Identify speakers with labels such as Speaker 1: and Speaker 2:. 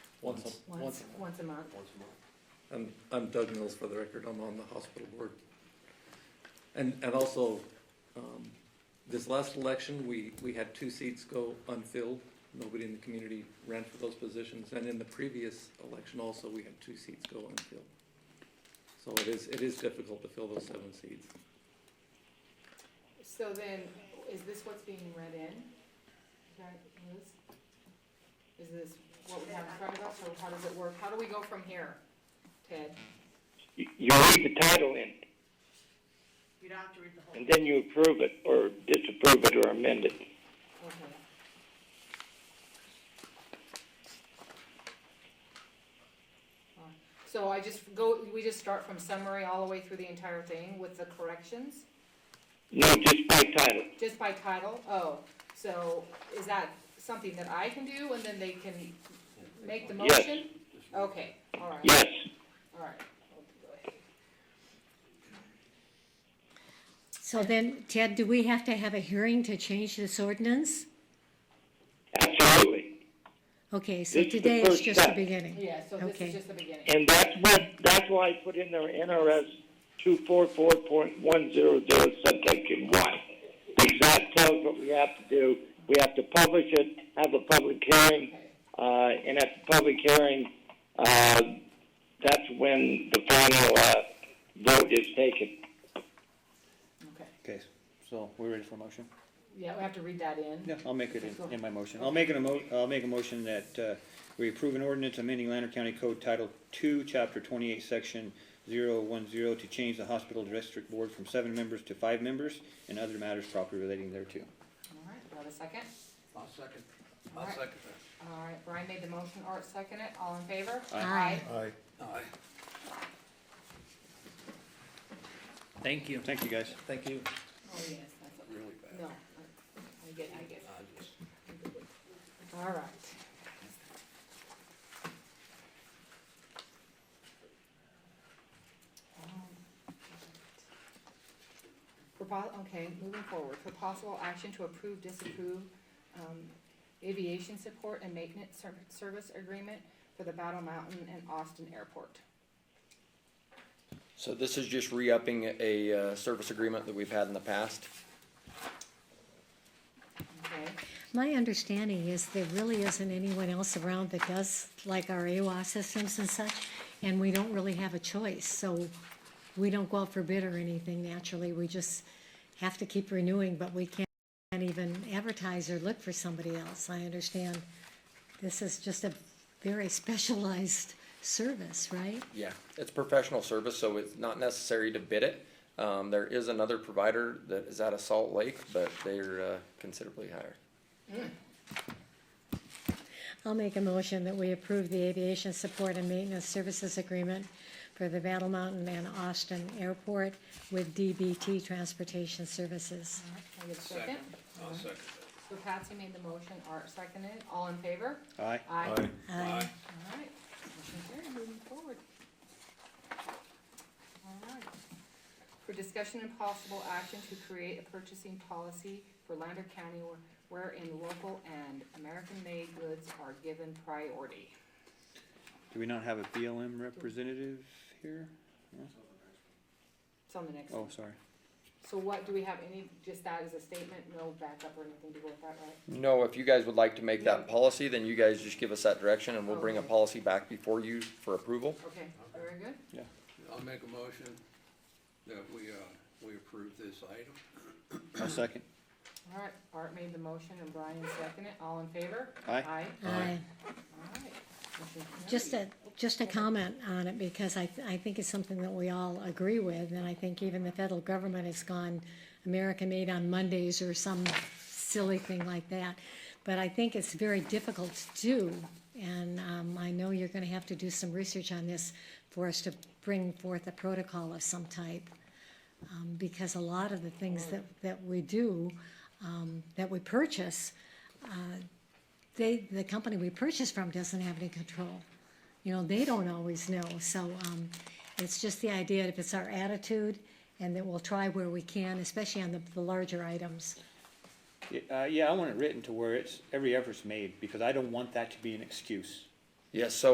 Speaker 1: Once, a- once,
Speaker 2: once, once a month.
Speaker 1: a- and I'm Doug Mills for the record, I'm on the hospital board. And, and also, um, this last election, we, we had two seats go unfilled. Nobody in the community ran for those positions, and in the previous election also, we had two seats go unfilled. So it is, it is difficult to fill those seven seats.
Speaker 2: So then, is this what's being read in? Right, Liz? Is this what we have in front of us, or how does it work? How do we go from here, Ted?
Speaker 3: You you read the title in,
Speaker 4: You don't have to read the whole.
Speaker 3: and then you approve it, or disapprove it, or amend it.
Speaker 2: Okay. So I just go, we just start from summary all the way through the entire thing with the corrections?
Speaker 3: No, just by title.
Speaker 2: Just by title? Oh, so is that something that I can do and then they can make the
Speaker 3: Yes.
Speaker 2: motion? Okay, all right,
Speaker 3: Yes,
Speaker 2: all right. Go ahead.
Speaker 5: So then, Ted, do we have to have a hearing to change this ordinance?
Speaker 3: absolutely.
Speaker 5: Okay, so
Speaker 3: This is the
Speaker 5: today is
Speaker 3: first
Speaker 5: just the
Speaker 3: step.
Speaker 5: beginning.
Speaker 2: Yeah, so this
Speaker 5: Okay.
Speaker 2: is just the beginning.
Speaker 3: And that's what, that's why I put in there NRS two four four point one zero zero subsection one. Because that tells what we have to do. We have to publish it, have a public hearing, uh, and at the public hearing, uh, that's when the final, uh, vote is taken.
Speaker 2: Okay,
Speaker 6: Okay, so we're ready for a motion?
Speaker 2: yeah, we have to read that in.
Speaker 6: Yeah, I'll make it in, in my motion. I'll make an emo, I'll make a motion that, uh, we approve an ordinance amending Lander County Code Title Two, Chapter twenty-eight, Section zero one zero to change the hospital district board from seven members to five members and other matters properly relating thereto.
Speaker 2: All right, do I have a second?
Speaker 7: I'll second,
Speaker 2: All
Speaker 7: I'll
Speaker 2: right.
Speaker 7: second that.
Speaker 2: All right, Brian made the motion, Art seconded it, all in favor?
Speaker 5: Aye.
Speaker 7: Aye. Aye.
Speaker 1: Thank you.
Speaker 6: Thank you, guys.
Speaker 1: Thank you.
Speaker 2: Oh, yes, that's what,
Speaker 7: Really bad.
Speaker 2: no, I- I get, I get,
Speaker 7: I just-
Speaker 2: all right. Um, For po- okay, moving forward, for possible action to approve, disapprove, um, aviation support and maintenance ser- service agreement for the Battle Mountain and Austin Airport.
Speaker 8: So this is just re-upping a uh, service agreement that we've had in the past.
Speaker 2: Okay,
Speaker 5: My understanding is there really isn't anyone else around that does like our AWA systems and such, and we don't really have a choice, so we don't go out for bid or anything naturally, we just have to keep renewing, but we can't even advertise or look for somebody else, I understand. This is just a very specialized service, right?
Speaker 8: Yeah. It's professional service, so it's not necessary to bid it. Um, There is another provider that is out of Salt Lake, but they're uh, considerably higher.
Speaker 5: I'll make a motion that we approve the aviation support and maintenance services agreement for the Battle Mountain and Austin Airport with DBT Transportation Services.
Speaker 2: all right, can I get a second?
Speaker 7: Second, I'll second
Speaker 2: So Patsy made the motion, Art seconded, it. all in favor?
Speaker 6: Aye.
Speaker 2: Aye.
Speaker 7: that.
Speaker 5: Aye.
Speaker 2: All right, motion carried, moving forward. All right. For discussion and possible action to create a purchasing policy for Lander County where- wherein local and American-made goods are given priority.
Speaker 6: Do we not have a BLM representative here?
Speaker 2: It's on the next
Speaker 6: Oh,
Speaker 2: one.
Speaker 6: sorry.
Speaker 2: So what, do we have any, just that as a statement, no backup or anything to go with that, right?
Speaker 8: No, if you guys would like to make that policy, then you guys just give us that direction and we'll bring a
Speaker 2: Okay.
Speaker 8: policy back before you for approval.
Speaker 2: Okay, very good.
Speaker 7: I'll make a motion that we, uh, we approve this item.
Speaker 6: I'll second.
Speaker 2: All right, Art made the motion and Brian seconded, it. all in favor?
Speaker 6: Aye.
Speaker 2: Aye,
Speaker 5: Aye.
Speaker 2: all right. Motion carried.
Speaker 5: Just a, just a comment on it, because I, I think it's something that we all agree with, and I think even the federal government has gone American-made on Mondays or some silly thing like that. But I think it's very difficult to do, and, um, I know you're gonna have to do some research on this for us to bring forth a protocol of some type. Um, because a lot of the things that, that we do, um, that we purchase, they, the company we purchase from doesn't have any control. You know, they don't always know, so, um, it's just the idea, if it's our attitude, and that we'll try where we can, especially on the, the larger items.
Speaker 6: Yeah, Uh, yeah, I want it written to where it's, every effort's made, because I don't want that to be an excuse.
Speaker 8: Yes, so